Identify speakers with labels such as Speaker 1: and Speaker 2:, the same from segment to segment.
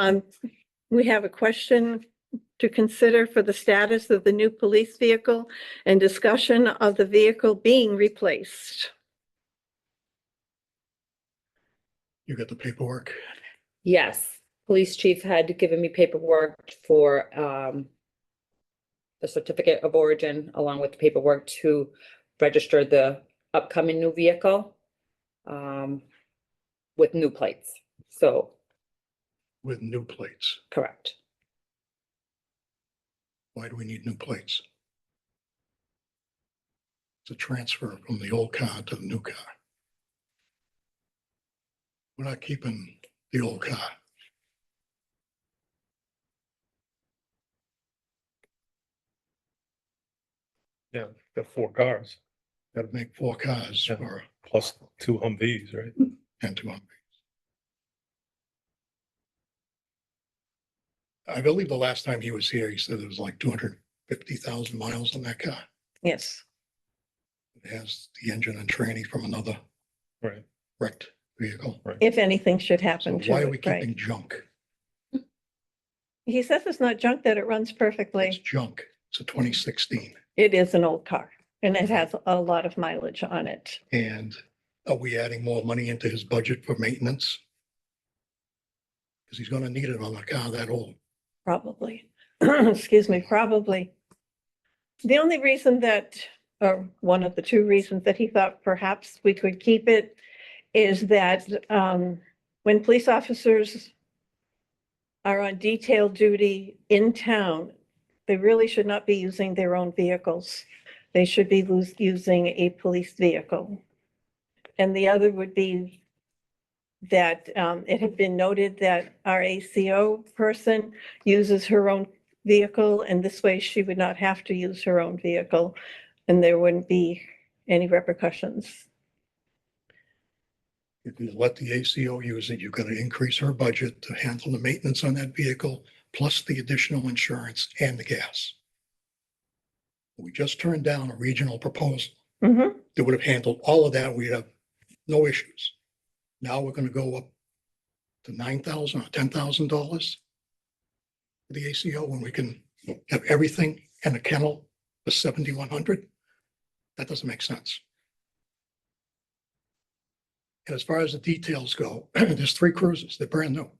Speaker 1: Um, we have a question to consider for the status of the new police vehicle and discussion of the vehicle being replaced.
Speaker 2: You got the paperwork.
Speaker 3: Yes, police chief had given me paperwork for um. The certificate of origin along with paperwork to register the upcoming new vehicle. Um, with new plates, so,
Speaker 2: with new plates.
Speaker 3: correct.
Speaker 2: Why do we need new plates? It's a transfer from the old car to the new car. We're not keeping the old car.
Speaker 4: Yeah, got four cars
Speaker 2: Got to make four cars
Speaker 4: Yeah.
Speaker 2: or
Speaker 4: plus two Humvees, right?
Speaker 2: and two Humvees. I believe the last time he was here, he said there was like two hundred fifty thousand miles on that car.
Speaker 1: Yes.
Speaker 2: It has the engine and tranny from another
Speaker 4: Right.
Speaker 2: wrecked vehicle.
Speaker 1: If anything should
Speaker 2: So
Speaker 1: happen to
Speaker 2: why are we
Speaker 1: it, right?
Speaker 2: keeping junk?
Speaker 1: He says it's not junk, that it runs
Speaker 2: It's
Speaker 1: perfectly.
Speaker 2: junk. It's a twenty sixteen.
Speaker 1: It is an old car and it has a lot of mileage on it.
Speaker 2: And are we adding more money into his budget for maintenance? Because he's gonna need it on a car that old.
Speaker 1: Probably, excuse me, probably. The only reason that, or one of the two reasons that he thought perhaps we could keep it is that um, when police officers are on detail duty in town, they really should not be using their own vehicles. They should be lose- using a police vehicle. And the other would be that um, it had been noted that our ACO person uses her own vehicle, and this way she would not have to use her own vehicle, and there wouldn't be any repercussions.
Speaker 2: If you let the ACO use it, you're gonna increase her budget to handle the maintenance on that vehicle, plus the additional insurance and the gas. We just turned down a regional proposal
Speaker 1: Mhm.
Speaker 2: that would have handled all of that. We'd have no issues. Now we're gonna go up to nine thousand or ten thousand dollars for the ACO when we can have everything and a kennel for seventy-one hundred? That doesn't make sense. And as far as the details go, there's three cruises. They're brand new.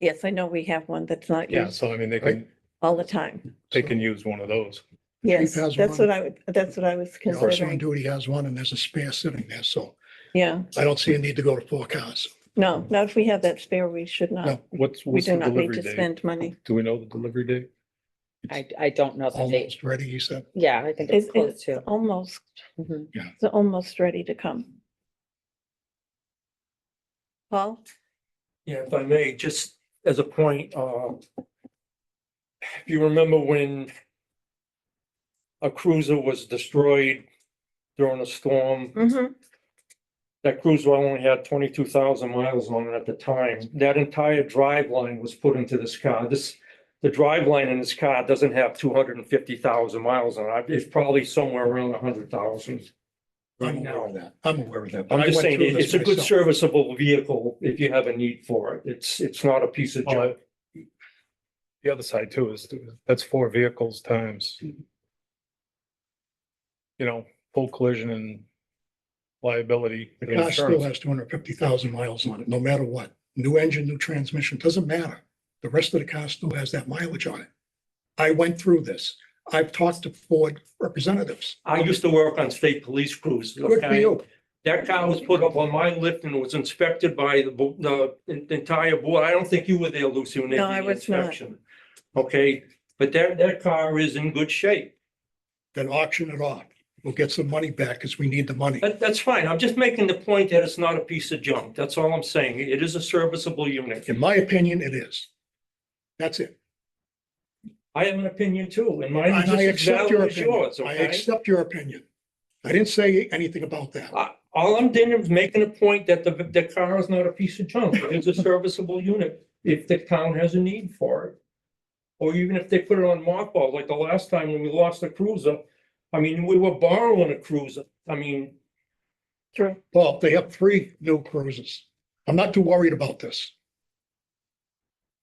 Speaker 1: Yes, I know we have one that's not
Speaker 4: Yeah,
Speaker 1: used
Speaker 4: so I mean, they can,
Speaker 1: all the time.
Speaker 4: they can use one of those.
Speaker 1: Yes,
Speaker 2: has
Speaker 1: that's
Speaker 2: one.
Speaker 1: what I, would. that's what I was
Speaker 2: The Officer on
Speaker 1: considering.
Speaker 2: duty has one and there's a spare sitting there, so
Speaker 1: Yeah,
Speaker 2: I don't see a need to go to four cars.
Speaker 1: no, not if we have that spare, we should not.
Speaker 2: No.
Speaker 4: What's,
Speaker 1: We
Speaker 4: what's
Speaker 1: do
Speaker 4: the
Speaker 1: not need
Speaker 4: delivery
Speaker 1: to
Speaker 4: date?
Speaker 1: spend money.
Speaker 4: Do we know the delivery date?
Speaker 3: I I don't know the date.
Speaker 2: Almost ready, he said.
Speaker 3: Yeah, I think
Speaker 1: It's,
Speaker 3: it's close
Speaker 1: it's
Speaker 3: to.
Speaker 1: almost,
Speaker 3: Mhm.
Speaker 1: it's almost ready to come. Paul?
Speaker 5: Yeah, if I may, just as a point, uh. If you remember when. A cruiser was destroyed during a storm,
Speaker 1: Mhm.
Speaker 5: that cruiser only had twenty-two thousand miles on it at the time. That entire driveline was put into this car. This, the driveline in this car doesn't have two hundred and fifty thousand miles on it. It's probably somewhere around hundred thousand.
Speaker 2: I'm
Speaker 5: Right
Speaker 2: aware of that. I'm aware of that.
Speaker 5: I'm
Speaker 2: I
Speaker 5: just
Speaker 2: went
Speaker 5: saying,
Speaker 2: through
Speaker 5: it-
Speaker 2: this
Speaker 5: it's a good
Speaker 2: myself.
Speaker 5: serviceable vehicle if you have a need for it. It's, it's not a piece
Speaker 2: Uh,
Speaker 5: of junk.
Speaker 4: Well, I- The other side too is, that's four vehicles times. You know, full collision and liability.
Speaker 2: The
Speaker 4: and
Speaker 2: car still
Speaker 4: insurance.
Speaker 2: has two hundred fifty thousand miles on it, no matter what. New engine, new transmission, doesn't matter. The rest of the car still has that mileage on it. I went through this. I've talked to Ford representatives.
Speaker 5: I used to work on state police crews.
Speaker 2: Good for
Speaker 5: okay?
Speaker 2: you.
Speaker 5: That car was put up on my lift and was inspected by the, bo- the en- entire board. I don't think you were there, Lucy, when they
Speaker 1: No,
Speaker 5: did
Speaker 1: I
Speaker 5: the
Speaker 1: was not.
Speaker 5: inspection. Okay, but that, that car is in good shape.
Speaker 2: Then auction it off. We'll get some money back because we need the money.
Speaker 5: That, that's fine. I'm just making the point that it's not a piece of junk. That's all I'm saying. It is a serviceable unit.
Speaker 2: In my opinion, it is. That's it.
Speaker 5: I have an opinion too, and mine
Speaker 2: And
Speaker 5: is
Speaker 2: I
Speaker 5: just as
Speaker 2: accept your
Speaker 5: valid as
Speaker 2: opinion.
Speaker 5: yours,
Speaker 2: I
Speaker 5: okay?
Speaker 2: accept your opinion. I didn't say anything about that.
Speaker 5: I- All I'm doing is making a point that the, the car is not a piece of junk. It's a serviceable unit if the town has a need for it. Or even if they put it on mothball, like the last time when we lost the cruiser. I mean, we were borrowing a cruiser. I mean,
Speaker 1: True.
Speaker 2: Well, they have three new cruises. I'm not too worried about this.